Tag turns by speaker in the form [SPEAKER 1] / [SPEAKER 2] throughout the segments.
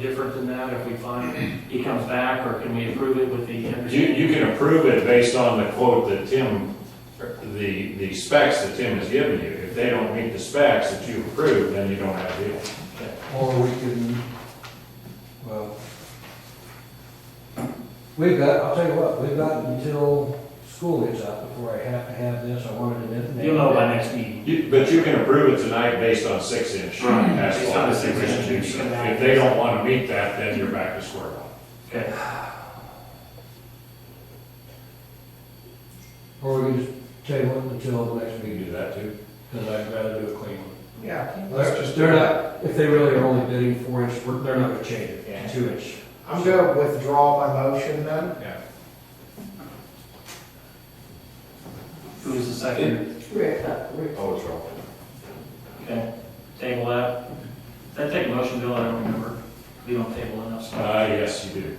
[SPEAKER 1] different than that if we find he comes back, or can we approve it with the
[SPEAKER 2] You,
[SPEAKER 1] understanding?
[SPEAKER 2] you can approve it based on the quote that Tim, the, the specs that Tim has given you. If they don't meet the specs that you approved, then you don't have a deal.
[SPEAKER 3] Or we can, well, we've got, I'll tell you what, we've got until school gets out before I have to have this, I wanted it.
[SPEAKER 1] You'll know by next meeting.
[SPEAKER 2] You, but you can approve it tonight based on six inch
[SPEAKER 1] Right. Based on
[SPEAKER 2] asphalt.
[SPEAKER 1] the six
[SPEAKER 2] If
[SPEAKER 1] inch, you can have-
[SPEAKER 2] they don't wanna meet that, then you're back to square one.
[SPEAKER 1] Okay.
[SPEAKER 3] Or we can just table it until the next
[SPEAKER 2] You
[SPEAKER 3] meeting,
[SPEAKER 2] can do that too.
[SPEAKER 3] because I'd rather do a clean one.
[SPEAKER 4] Yeah.
[SPEAKER 3] They're just, they're not, if they really are only bidding four inch, we're- they're not gonna change it to two inch.
[SPEAKER 4] I'm gonna withdraw my motion then.
[SPEAKER 3] Yeah.
[SPEAKER 1] Who was the second?
[SPEAKER 2] Oh, it's wrong.
[SPEAKER 1] Okay, table that. Does That take a motion, Bill, I don't remember. We don't table enough stuff.
[SPEAKER 2] Uh, yes, you do.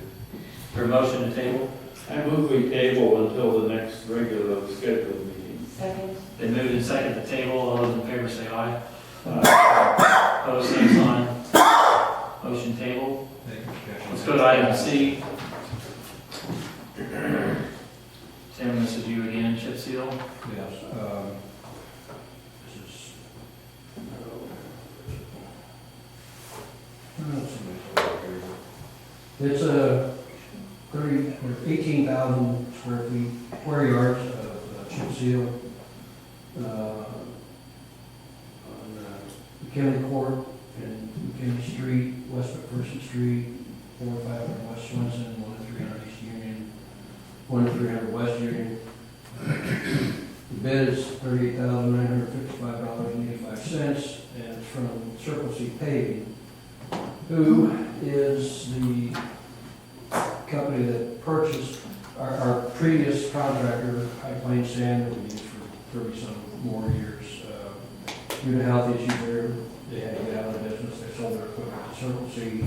[SPEAKER 1] Or motion to table?
[SPEAKER 5] I move we table until the next regular scheduled meeting.
[SPEAKER 6] Second.
[SPEAKER 1] They moved and seconded the table, all those in favor say aye. Opposed, same sign. Motion table. Let's go to item C. Tim, this is you again, chip seal.
[SPEAKER 3] Yes, um, this is. Uh, let's see what's over here. It's a thirty, eighteen thousand square feet, square yards of uh, chip seal. uh, On uh, McKinley Court and McKinley Street, West McPherson Street, four oh five on West Swenson, one oh three hundred East Union, one oh three hundred West Union, the bid is thirty-eight thousand nine hundred fifty-five dollars and eighty-five cents, and it's from Circle C Paving, who is the company that purchased our, our previous contractor, High Plains Sand, that we used for thirty-some more years. Uh, Due to health issues there, they had to get out of the business, they sold their equipment to Circle C.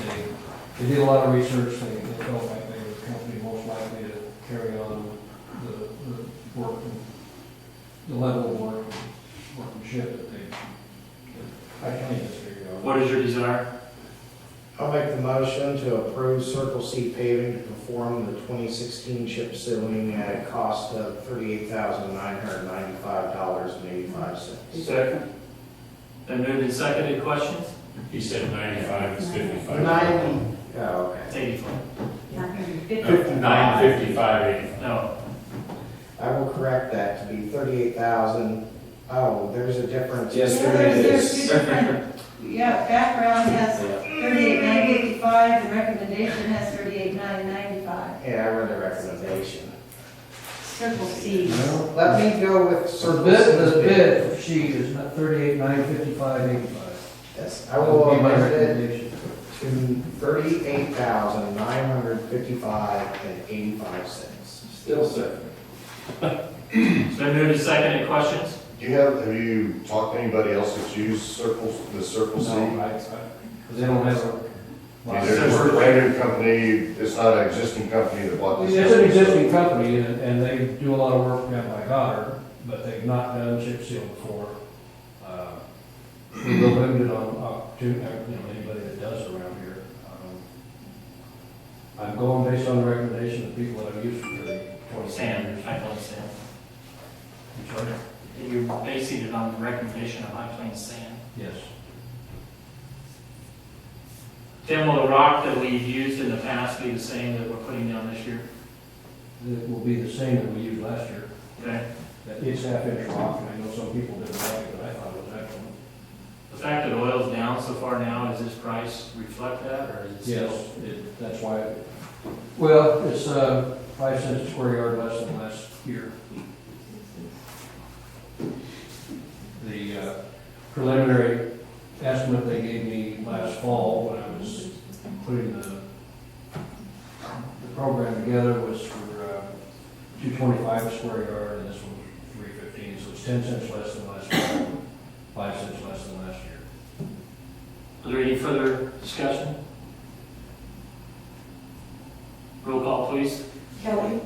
[SPEAKER 3] They, they did a lot of research, they, they felt like they were the company most likely to carry on the, the work, the level of work, workmanship that they, that I can't even figure out.
[SPEAKER 1] What is your desire?
[SPEAKER 4] I'll make the motion to approve Circle C paving to perform the 2016 chip sealing at a cost of $38,995.85.
[SPEAKER 5] Second?
[SPEAKER 1] They moved and seconded, questions?
[SPEAKER 2] He said ninety-five, it's fifty-five.
[SPEAKER 4] 90, oh, okay.
[SPEAKER 1] It's eighty-four.
[SPEAKER 2] Uh, Nine fifty-five eighty.
[SPEAKER 1] No,
[SPEAKER 4] I will correct that to be 38,000, oh, there's a difference.
[SPEAKER 7] Yes, there
[SPEAKER 6] Yeah, there's,
[SPEAKER 7] it
[SPEAKER 6] there's two
[SPEAKER 7] is.
[SPEAKER 6] different, yeah, background has
[SPEAKER 7] Yeah.
[SPEAKER 6] thirty-eight nine fifty-five, the recommendation has thirty-eight nine ninety-five.
[SPEAKER 4] Yeah, I read the recommendation.
[SPEAKER 6] Circle C.
[SPEAKER 3] Well,
[SPEAKER 4] Let me go with
[SPEAKER 3] The
[SPEAKER 4] Circle C.
[SPEAKER 3] bid, the bid, she is not thirty-eight, nine fifty-five, eighty-five.
[SPEAKER 4] Yes, I will amend it
[SPEAKER 3] recommendation.
[SPEAKER 4] to thirty-eight thousand, nine hundred fifty-five and eighty-five cents.
[SPEAKER 7] Still second.
[SPEAKER 1] they moved and seconded, questions?
[SPEAKER 8] Do you have, have you talked to anybody else that's used circles, the Circle C?
[SPEAKER 3] No, I- I- They don't have a.
[SPEAKER 8] Is there a related company, it's not an existing company that bought this?
[SPEAKER 3] It's an
[SPEAKER 8] company, so-
[SPEAKER 3] existing company, and, and they do a lot of work down by Goddard, but they've not done chip seal before. Uh, We were limited on opportunity, you know, anybody that does around here. Um, I'm going based on the recommendation of people that I've used for the twenty
[SPEAKER 1] Sam,
[SPEAKER 3] years.
[SPEAKER 1] High Plains Sam.
[SPEAKER 3] I'm sorry?
[SPEAKER 1] You're basing it on the recommendation of High Plains Sam.
[SPEAKER 3] Yes.
[SPEAKER 1] Tim, will the rock that we've used in the past be the same that we're putting down this year?
[SPEAKER 3] It will be the same that we used last year.
[SPEAKER 1] Okay?
[SPEAKER 3] That It's half inch rock, and I know some people didn't like it, but I thought it was excellent.
[SPEAKER 1] The fact that oil's down so far now, does this price reflect that, or is it still?
[SPEAKER 3] Yes, it- that's why, it- well, it's uh, five cents a square yard less than last year. The uh, preliminary estimate they gave me last fall when I was putting the, the program together was for uh, two twenty-five a square yard, and this one was three fifteen, so it's ten cents less than last fall, five cents less than last year.
[SPEAKER 1] Is there any further discussion? Roll call, please.
[SPEAKER 6] Kelly?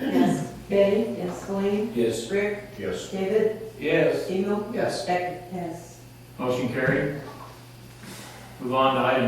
[SPEAKER 6] Yes. Betty? Yes. Colleen?
[SPEAKER 7] Yes.
[SPEAKER 6] Rick?
[SPEAKER 8] Yes.
[SPEAKER 6] David?
[SPEAKER 5] Yes.
[SPEAKER 6] Emo?
[SPEAKER 4] Yes.
[SPEAKER 6] Becky? Yes.
[SPEAKER 1] Motion carried. Move on to item